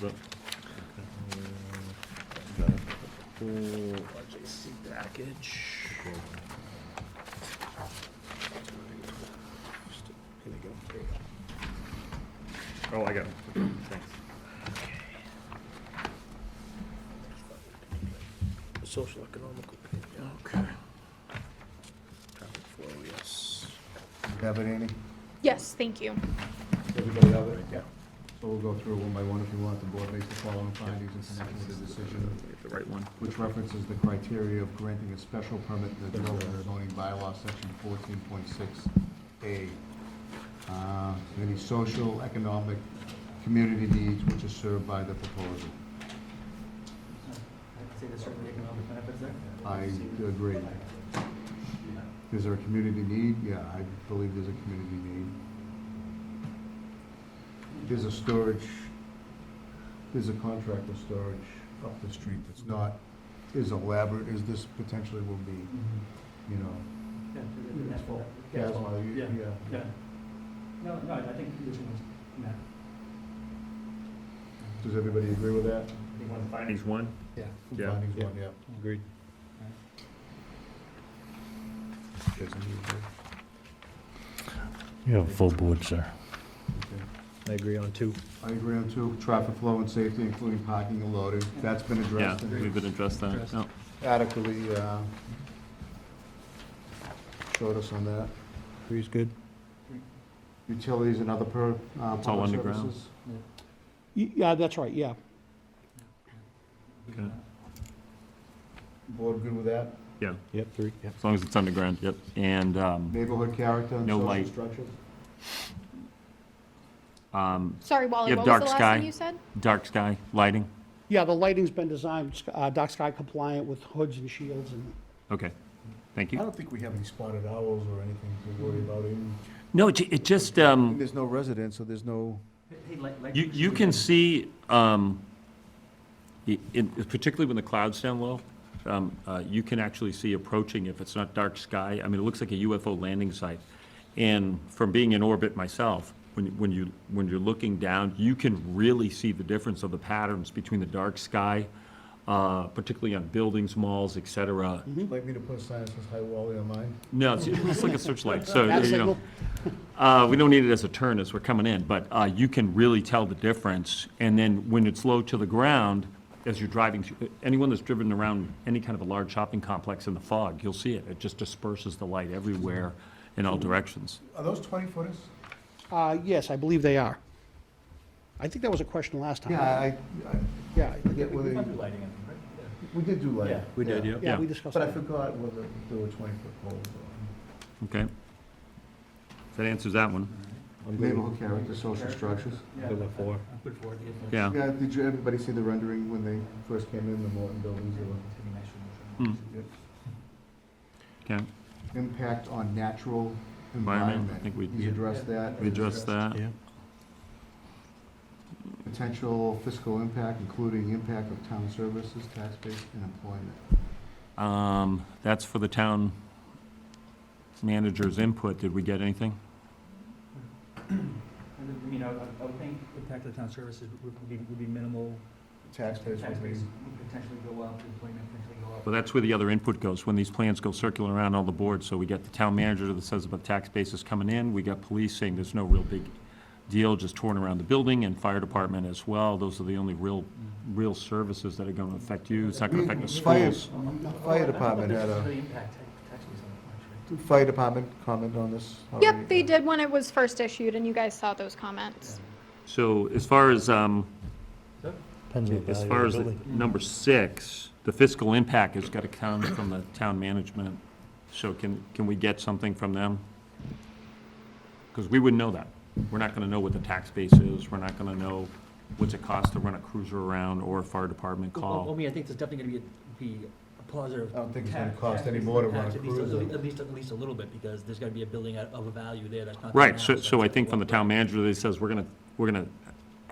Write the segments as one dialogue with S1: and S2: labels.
S1: but. LJC package. Oh, I got it. Thanks. Social economical, okay. Traffic flow, yes.
S2: Have it, Annie?
S3: Yes, thank you.
S2: Everybody have it? Yeah. So we'll go through one by one if you want. The board makes the following findings in connection with the decision,
S1: The right one.
S2: which references the criteria of granting a special permit in the development and zoning bylaw, section fourteen point six A. Uh, Any social, economic, community needs which is served by the proposal.
S4: I'd say there's certainly economic benefits there.
S2: I agree. Is there a community need? Yeah, I believe there's a community need. There's a storage, there's a contractor storage up the street that's not as elaborate as this potentially will be, you know.
S4: Yeah, there's a net for-
S2: Yeah, that's why you-
S4: Yeah,
S2: yeah.
S4: yeah. No, no, I think there's one, Matt,
S2: Does everybody agree with that?
S4: you want to find
S1: Findings one?
S4: Yeah.
S1: Yeah.
S2: Findings one, yeah.
S1: Agreed.
S2: Yes, I agree.
S5: You have a full board, sir.
S2: Okay.
S1: I agree on two.
S2: I agree on two, traffic flow and safety, including parking and loading. That's been
S1: Yeah,
S2: addressed. and-
S1: we could address that,
S4: Addressed.
S1: no.
S2: adequately uh, showed us on that.
S5: Three's good.
S2: Utilities and other per, uh,
S1: It's all
S2: public
S1: underground.
S2: services.
S6: Yeah, that's right, yeah.
S1: Okay.
S2: Board good with that?
S1: Yeah,
S5: Yep, three, yep.
S1: as long as it's underground, yep. And, um,
S2: Neighborhood character and
S1: No
S2: social
S1: light.
S2: structures?
S1: um,
S3: Sorry, Wally,
S1: You
S3: what was
S1: have dark
S3: the last
S1: sky.
S3: thing you said?
S1: dark sky lighting,
S6: Yeah, the lighting's been designed, uh, dark sky compliant with hoods and shields and
S1: okay, thank
S2: I
S1: you.
S2: don't think we have any spotted owls or anything to worry about. even-
S1: No, it ju- it just, um,
S2: There's no residents, so there's no,
S4: Hey, like, like.
S1: You, you can see, um, i- in- particularly when the clouds down low, um, uh, you can actually see approaching, if it's not dark sky, I mean, it looks like a UFO landing site. And from being in orbit myself, when, when you, when you're looking down, you can really see the difference of the patterns between the dark sky, uh, particularly on buildings, malls, et cetera.
S2: like me to put a sign that says hi Wally on mine?
S1: No, it's, it's like a searchlight, so,
S6: that
S1: you know.
S6: signal.
S1: Uh, we don't need it as a turn as we're coming in, but, uh, you can really tell the difference. And then when it's low to the ground, as you're driving, through- anyone that's driven around any kind of a large shopping complex in the fog, you'll see it. It just disperses the light everywhere in all directions.
S2: Are those twenty footers?
S6: Uh, yes, I believe they are. I think that was a question last time.
S2: Yeah, I, I,
S6: Yeah, I-
S2: I forget
S4: We
S2: whether,
S4: went
S2: you-
S4: through lighting, I think, right? Yeah.
S2: we did do lighting.
S4: Yeah,
S1: we did, yeah.
S6: yeah, we discussed
S2: But I
S6: that.
S2: forgot whether there were twenty foot poles or.
S1: Okay? That answers that one.
S2: Neighborhood character, social structures.
S4: Yeah,
S5: Good with
S4: I-
S5: four.
S4: I Put four, yeah.
S1: Yeah.
S2: Yeah, did you, everybody see the rendering when they first came in, the Morton buildings,
S4: It's gonna be nice for
S1: Hmm,
S4: motion.
S1: Okay,
S2: the impact on natural
S1: Environment, I
S2: environment?
S1: think we-
S2: He's addressed that.
S1: we addressed that.
S5: Yeah.
S2: Potential fiscal impact, including impact of town services, tax base, and employment.
S1: Um, that's for the town manager's input. Did we get anything?
S4: And then, You know, I- I would think impact to the town services would- would be, would be minimal.
S2: Tax base
S4: Tax
S2: would be,
S4: base would potentially go up, employment potentially go up.
S1: Well, that's where the other input goes, when these plans go circling around all the boards. So we got the town manager that says about tax bases coming in, we got police saying there's no real big deal, just torn around the building, and fire department as well. Those are the only real, real services that are gonna affect you. It's not gonna affect the
S2: Fire-
S1: schools.
S2: Fire department had
S4: This is
S2: a,
S4: really impact ta- tax base on it, actually.
S2: fire department comment on this? already?
S3: Yep, they did when it was first issued, and you guys saw those comments.
S1: So as far as, um,
S5: Depends on the
S1: as
S5: value
S1: far
S5: of
S1: as
S5: the
S1: the
S5: building.
S1: number six, the fiscal impact has gotta come from the town management. So can, can we get something from them? Because we wouldn't know that. We're not gonna know what the tax base is, we're not gonna know what's it cost to run a cruiser around or a fire department
S4: Well, Well, I
S1: call.
S4: mean, I think there's definitely gonna be, a- be a positive.
S2: I don't think it's
S4: tax-
S2: gonna cost
S4: tax
S2: any
S4: base
S2: more to
S4: impact,
S2: run a
S4: at least-
S2: cruiser.
S4: At least, at least a little bit, because there's gotta be a building out of a value there that's not. there now,
S1: Right, so, so I
S4: it's
S1: think from the
S4: like,
S1: town manager, they says, we're gonna, we're gonna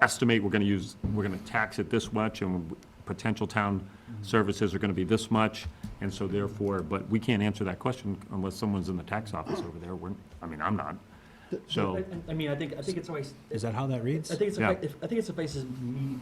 S1: estimate, we're gonna use, we're gonna tax it this much, and potential town
S4: Mm-hmm.
S1: services are gonna be this much, and so therefore, but we can't answer that question unless someone's in the tax office over there, we're, I mean, I'm not. So.
S4: I- I I mean, I think, I think it's always, I
S5: Is that how that reads?
S4: think it's,
S1: Yeah.
S4: effect- I think it's suffices me